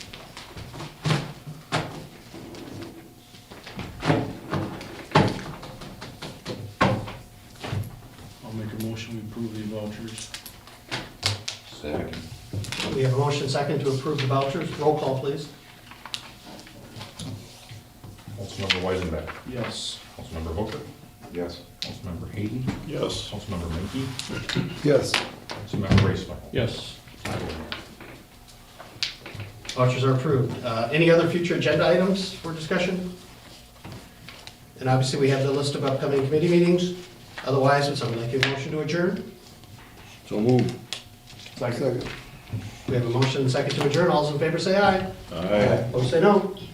motion, we approve the vouchers. Second. We have a motion second to approve the vouchers. Roll call, please. Councilmember Weisenbeck. Yes. Councilmember Hooker. Yes. Councilmember Hayden. Yes. Councilmember Mankey. Yes. Councilmember oh Raisler. Yes. I vote yes. Vouchers are approved. Uh, Any other future agenda items for discussion? And obviously, we have the list of upcoming committee meetings. Otherwise, would someone like a motion to adjourn? So move. Second. We have a motion second to adjourn. All those in favor say aye. Aye. Opposed say no.